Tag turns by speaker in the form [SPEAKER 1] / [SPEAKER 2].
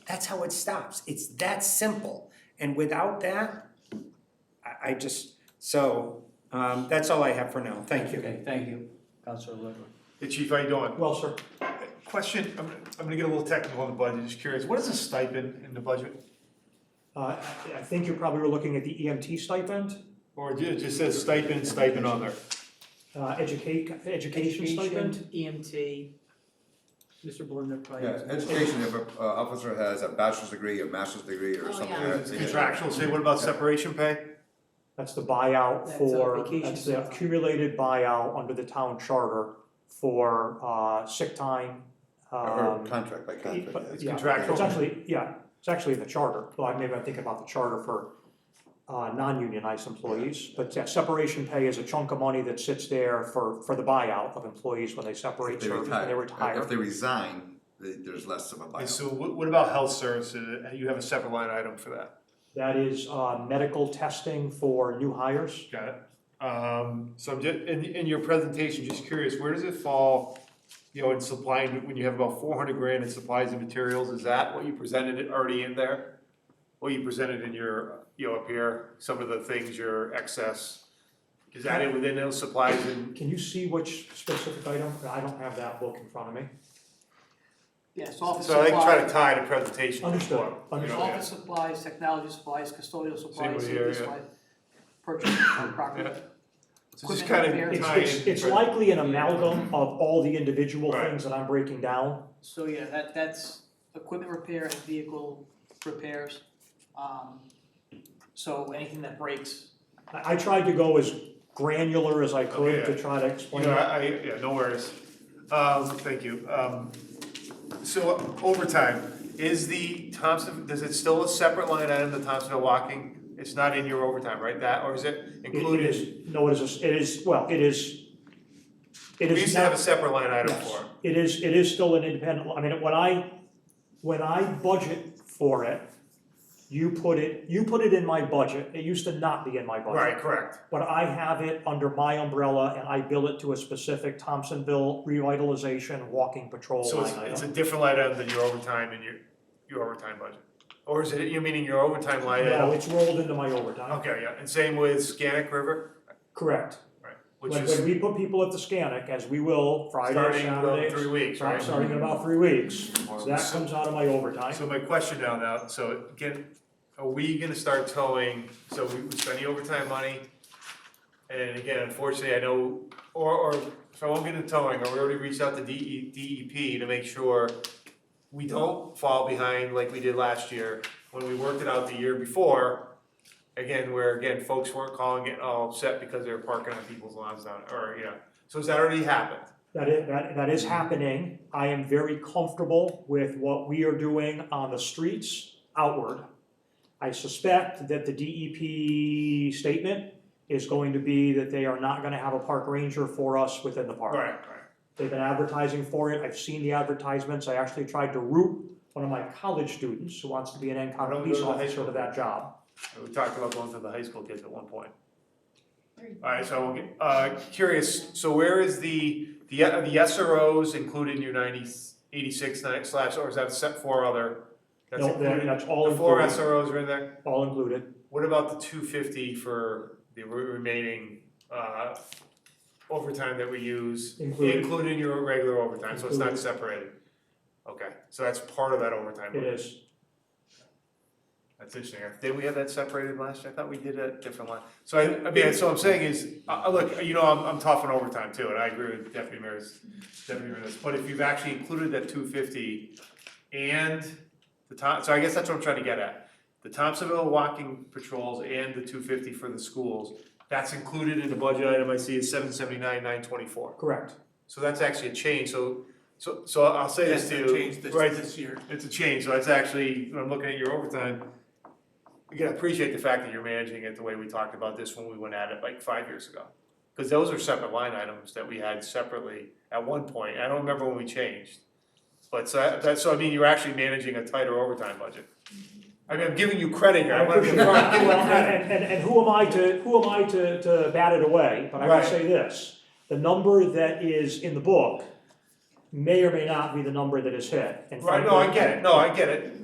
[SPEAKER 1] That's how it stops. It's that simple. And without that, I, I just, so, um, that's all I have for now. Thank you.
[SPEAKER 2] Okay, thank you, Counselor Ludwig.
[SPEAKER 3] Hey Chief, how you doing?
[SPEAKER 4] Well, sir,
[SPEAKER 3] Question, I'm, I'm gonna get a little technical on the budget, just curious, what is a stipend in the budget?
[SPEAKER 4] uh, I I think you probably were looking at the EMT stipend,
[SPEAKER 3] Or it just says stipend, stipend other?
[SPEAKER 4] uh, educate, education stipend.
[SPEAKER 2] EMT. Mr. Belinda probably.
[SPEAKER 5] Yeah, education, if a uh, officer has a bachelor's degree, a master's degree,
[SPEAKER 6] Oh,
[SPEAKER 5] or something.
[SPEAKER 6] yeah.
[SPEAKER 5] like
[SPEAKER 3] It's
[SPEAKER 5] that,
[SPEAKER 3] Contractual, say what about separation pay?
[SPEAKER 4] That's the buyout
[SPEAKER 2] That's our
[SPEAKER 4] for,
[SPEAKER 2] vacation
[SPEAKER 4] that's the
[SPEAKER 2] time.
[SPEAKER 4] accumulated buyout under the town charter for, uh, sick time.
[SPEAKER 5] Or
[SPEAKER 4] um,
[SPEAKER 5] contract by contract.
[SPEAKER 4] but-
[SPEAKER 5] yes.
[SPEAKER 4] yeah,
[SPEAKER 3] contractual.
[SPEAKER 4] It's actually, yeah, it's actually in the charter, well, I- maybe I'm thinking about the charter for, uh, non-unionized employees. But that separation pay is a chunk of money that sits there for, for the buyout of employees when they separate
[SPEAKER 5] If they
[SPEAKER 4] service,
[SPEAKER 5] retire,
[SPEAKER 4] when they retire.
[SPEAKER 5] if they resign, th- there's less of a
[SPEAKER 3] And
[SPEAKER 5] buyout.
[SPEAKER 3] so what, what about health services, you have a separate line item for that,
[SPEAKER 4] That is uh, medical testing for new hires.
[SPEAKER 3] got it? Um, so I'm just, in, in your presentation, just curious, where does it fall, you know, in supply, and- when you have about four hundred grand in supplies and materials, is that what you presented it already in there? What you presented in your, you know, up here, some of the things, your excess, is that it within those supplies and
[SPEAKER 4] Can you see which specific item? I don't have that book in front of me.
[SPEAKER 2] Yes, office
[SPEAKER 3] So I can try to
[SPEAKER 2] supplies,
[SPEAKER 3] tie the presentation. to the
[SPEAKER 4] Understood,
[SPEAKER 3] form, you know,
[SPEAKER 4] understood.
[SPEAKER 2] office supplies, technology supplies, custodial supplies,
[SPEAKER 3] what here,
[SPEAKER 2] safety
[SPEAKER 3] yeah.
[SPEAKER 2] supplies, purchase of property.
[SPEAKER 3] Yeah. So just
[SPEAKER 2] equipment
[SPEAKER 3] kind of
[SPEAKER 2] repair.
[SPEAKER 4] It's,
[SPEAKER 3] tie
[SPEAKER 4] it's,
[SPEAKER 3] in the
[SPEAKER 4] it's
[SPEAKER 3] present-
[SPEAKER 4] likely an amalgam of all the individual
[SPEAKER 3] Right.
[SPEAKER 4] things that I'm breaking down.
[SPEAKER 2] So, yeah, that, that's equipment repair and vehicle repairs. Um, So anything that breaks,
[SPEAKER 4] I, I tried to go as granular as I could
[SPEAKER 3] Okay,
[SPEAKER 4] to
[SPEAKER 3] yeah.
[SPEAKER 4] try to
[SPEAKER 3] You
[SPEAKER 4] explain
[SPEAKER 3] know,
[SPEAKER 4] it.
[SPEAKER 3] I, I- yeah, no worries. Um, thank you. Um, so overtime, is the Thompson, is it still a separate line item, the Thompsonville walking? It's not in your overtime, right, that, or is it
[SPEAKER 4] It- It
[SPEAKER 3] included?
[SPEAKER 4] is, no, it is, it is, well, it is, it is not.
[SPEAKER 3] We used to have a separate line item
[SPEAKER 4] Yes.
[SPEAKER 3] for it.
[SPEAKER 4] It is, it is still an independent, I mean, when I, when I budget for it, you put it, you put it in my budget, it used to not be in my budget.
[SPEAKER 3] Right, correct.
[SPEAKER 4] But I have it under my umbrella and I bill it to a specific Thompsonville revitalization walking patrol
[SPEAKER 3] So it's,
[SPEAKER 4] line
[SPEAKER 3] it's a
[SPEAKER 4] item.
[SPEAKER 3] different line item than your overtime and your, your overtime budget? Or is it, you meaning your overtime line
[SPEAKER 4] No,
[SPEAKER 3] item?
[SPEAKER 4] it's rolled into my overtime,
[SPEAKER 3] uh, Okay, yeah, and same with Scannick River,
[SPEAKER 4] correct.
[SPEAKER 3] right, which
[SPEAKER 4] When,
[SPEAKER 3] is.
[SPEAKER 4] when we put people at the Scannick, as we will Friday,
[SPEAKER 3] Starting in about
[SPEAKER 4] Saturday,
[SPEAKER 3] three weeks, right?
[SPEAKER 4] starting in about three weeks, so that
[SPEAKER 3] So-
[SPEAKER 4] comes out of my overtime.
[SPEAKER 3] So my question now, now, so again, are we gonna start towing, so we we spend the overtime money? And again, unfortunately, I know, or, or, so I won't get into towing, or we already reached out to E, DE, DEP to make sure we don't fall behind like we did last year, when we worked it out the year before. Again, where again, folks weren't calling it all upset because they were parking on people's lawns down, or, you know, so has that already happened?
[SPEAKER 4] That is, that, that is happening. I am very comfortable with what we are doing on the streets outward. I suspect that the DEP statement is going to be that they are not gonna have a park ranger for us within the park.
[SPEAKER 3] Right, right.
[SPEAKER 4] They've been advertising for it. I've seen the advertisements. I actually tried to route one of my college students who wants to be an
[SPEAKER 3] Why
[SPEAKER 4] NCO
[SPEAKER 3] don't we go
[SPEAKER 4] police
[SPEAKER 3] to the high
[SPEAKER 4] officer
[SPEAKER 3] school?
[SPEAKER 4] to that job.
[SPEAKER 3] We talked about going to the high school kids at one point. Alright, so I won't get, uh, curious, so where is the, the, are the SROs included in your ninety, eighty-six nine slash, or is that set four other? That's
[SPEAKER 4] No, that-
[SPEAKER 3] included?
[SPEAKER 4] that's all
[SPEAKER 3] The four
[SPEAKER 4] included.
[SPEAKER 3] SROs are in there?
[SPEAKER 4] All included.
[SPEAKER 3] What about the two fifty for the re- remaining, uh, overtime that we use?
[SPEAKER 4] Included.
[SPEAKER 3] Included in your regular overtime, so it's not
[SPEAKER 4] Included.
[SPEAKER 3] separated? Okay, so that's part of that overtime.
[SPEAKER 4] It
[SPEAKER 3] budget.
[SPEAKER 4] is.
[SPEAKER 3] That's interesting. Did we have that separated last year? I thought we did a different line. So I, I mean, so I'm saying is, uh, uh, look, you know, I'm, I'm tough on overtime too, and I agree with Deputy Mayor's, Deputy Mayor's. But if you've actually included that two fifty and the Tom, so I guess that's what I'm trying to get at. The Thompsonville walking patrols and the two fifty for the schools, that's included in the budget item I see is seven seventy-nine, nine twenty-four.
[SPEAKER 4] Correct.
[SPEAKER 3] So that's actually a change, so, so, so I'll say this to you. right,
[SPEAKER 7] year.
[SPEAKER 3] it's a change, so that's actually, when I'm looking at your overtime, again, I appreciate the fact that you're managing it the way we talked about this when we went at it like five years ago. Cause those are separate line items that we had separately at one point, I don't remember when we changed. But so that- that's, so I mean, you're actually managing a tighter overtime budget. I mean, I'm giving you credit here,
[SPEAKER 4] I
[SPEAKER 3] I wanna
[SPEAKER 4] appreciate
[SPEAKER 3] confirm,
[SPEAKER 4] that.
[SPEAKER 3] I'm
[SPEAKER 4] And,
[SPEAKER 3] giving you credit.
[SPEAKER 4] and, and- and who am I to, who am I to, to bat it away? But I
[SPEAKER 3] Right.
[SPEAKER 4] will say this, the number that is in the book may or may not be the number that is hit. And
[SPEAKER 3] Right, no, I
[SPEAKER 4] frankly,
[SPEAKER 3] get it, no, I get it,